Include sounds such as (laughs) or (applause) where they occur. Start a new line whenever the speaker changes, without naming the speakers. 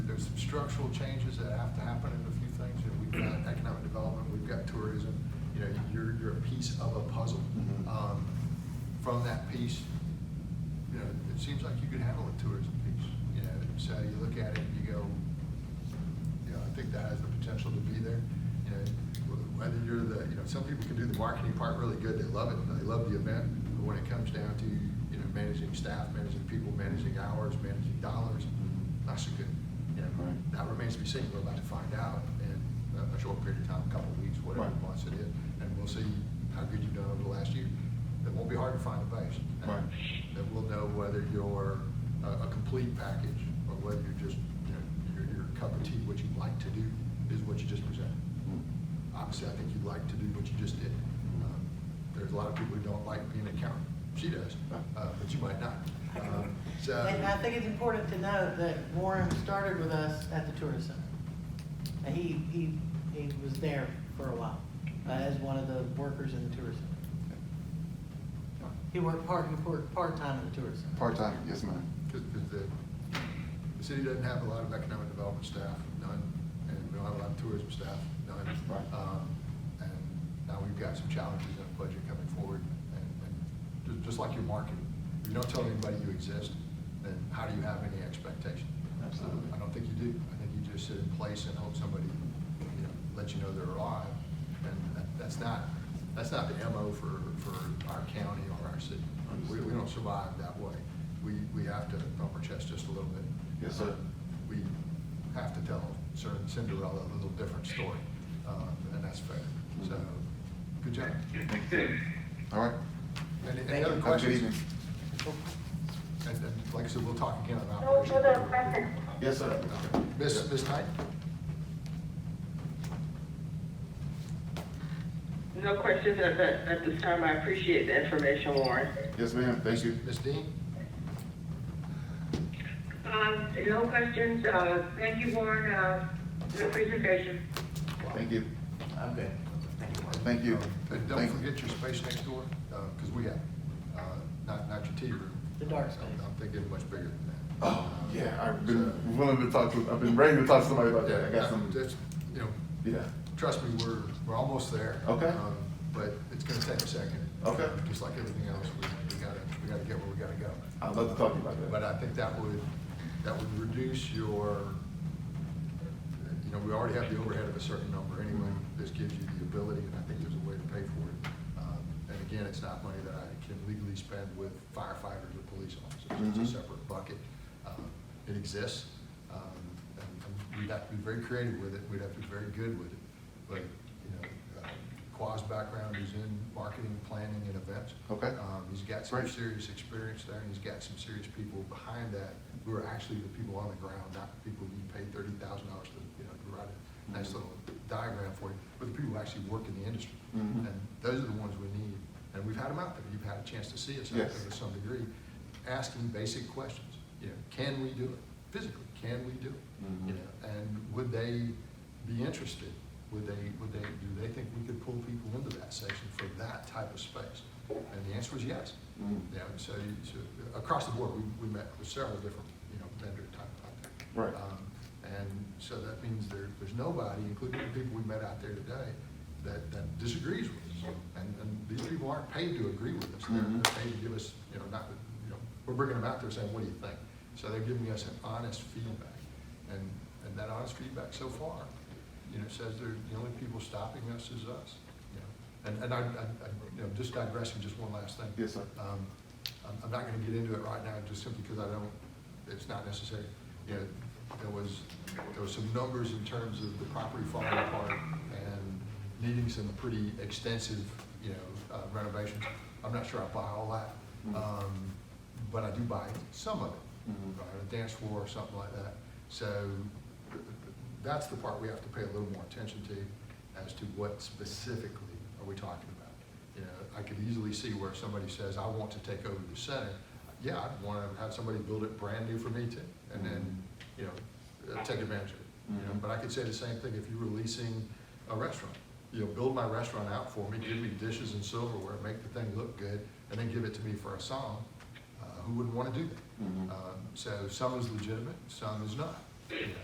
structural changes that have to happen in a few things. You know, we've got economic development, we've got tourism, you know, you're, you're a piece of a puzzle.
Mhm.
Um, From that piece, you know, it seems like you could handle a tourism piece, you know, so you look at it and you go, you know, I think that has the potential to be there, you know, wh- whether you're the, you know, some people can do the marketing part really good, they love it, and they love the event, but when it comes down to, you know, managing staff, managing people, managing hours, managing dollars, not so good. You know,
Right.
that remains to be seen, we're about to find out in a- a short period of time, a couple of weeks, whatever
Right.
months it is, and we'll see how good you've done over the last year. It won't be hard to find a base.
Right.
That we'll know whether you're a, a complete package, or whether you're just, you know, your, your cup of tea, what you'd like to do is what you just presented. Obviously, I think you'd like to do what you just did.
Mm-hmm.
Um, There's a lot of people who don't like being an accountant, she does, uh, but you might not.
(laughs)
Um, So.
And I think it's important to note that Warren started with us at the tourist center. And he, he, he was there for a while uh, as one of the workers in the tourist center. He worked part, he worked part-time in the tourist center.
Part-time, yes, ma'am.
Because the, the city doesn't have a lot of economic development staff, none, and we don't have a lot of tourism staff, none.
Right.
Um, And now we've got some challenges in the budget coming forward, and, and ju- just like your marketing, if you don't tell anybody you exist, then how do you have any expectation?
Absolutely.
Uh, I don't think you do, I think you just sit in place and hope somebody, you know, lets you know they're alive, and that, that's not, that's not the MO for, for our county or our city. We, we don't survive that way. We, we have to bump our chest just a little bit.
Yes, sir.
We have to tell Cin- Cinderella a little different story, uh, and that's fair. So, good job.
All right.
Any,
Thank
any
you.
other
Have a good evening.
questions? And, and like I said, we'll talk again about.
No further questions.
Yes, sir.
Miss Ms. Knight?
No questions at, that- at this time. I appreciate the information, Warren.
Yes, ma'am, thank you.
Ms. Dean?
Um, no questions, uh, thank you, Warren, uh, for the presentation.
Thank you.
I'm good.
Thank you.
Uh, And don't
Thank-
forget your space next door, because we have, uh, not, not your tea room.
The dark space.
I'm- I'm thinking much bigger than that.
Oh, yeah, I've been willing to talk to, I've been ready to talk to somebody about that. I got some,
That's, you know,
yeah.
trust me, we're, we're almost there.
Okay.
Um, But it's gonna take a second.
Okay.
Just like everything else, we, we gotta, we gotta get where we gotta go.
I'd love to talk to you about
But
that.
I think that would, that would reduce your, you know, we already have the overhead of a certain number anyway. This gives you the ability, and I think there's a way to pay for it. Um, And again, it's not money that I can legally spend with firefighters or police officers.
Mhm.
It's a separate bucket. Um, It exists. um, and and We'd have to be very creative with it. We'd have to be very good with it. But, you know, uh, Qua's background is in marketing, planning, and events.
Okay.
Um, He's got some
Great.
serious serious experience there, and he's got some serious people behind that, who are actually the people on the ground, not the people you pay thirty thousand dollars to, you know, to write a nice little diagram for you, but the people who actually work in the industry.
Mhm.
And those are the ones we need, and we've had them out there, you've had a chance to see us out there
Yes.
to some degree, asking basic questions, you know, can we do it? Physically, can we do it?
Mhm.
You know, and would they be interested? Would they, would they, do they think we could pull people into that section for that type of space? And the answer is yes.
Mm.
Yeah, and so, you- so across the board, we, we met with several different, you know, vendor type out there.
Right.
Um, And so that means there, there's nobody, including the people we met out there today, that, that disagrees with us. And, and these people aren't paid to agree with us. They're,
Mhm.
they're paid to give us, you know, not, you know, we're bringing them out there saying, what do you think? So they're giving us an honest feedback. And, and that honest feedback so far, you know, says they're, the only people stopping us is us, you know. And, and I, I, I- you know, just digressing, just one last thing.
Yes, sir.
Um, I'm, I'm not gonna get into it right now, just simply because I don't, it's not necessary. You know, there was, there was some numbers in terms of the property falling apart and needing some pretty extensive, you know, uh, renovations. I'm not sure I buy all that,
Mhm.
um, but I do buy some of it,
Mhm.
right, a dance floor or something like that. So that's the part we have to pay a little more attention to as to what specifically are we talking about. You know, I could easily see where somebody says, I want to take over the center. Yeah, I'd want to have somebody build it brand new for me to, and then, you know, uh, take advantage of it. You know,
Mhm.
but I could say the same thing if you were leasing a restaurant. You know, build my restaurant out for me, give me dishes and silverware, make the thing look good, and then give it to me for a song. Uh, Who wouldn't want to do that?
Mhm.
Um, So some is legitimate, some is not. you know.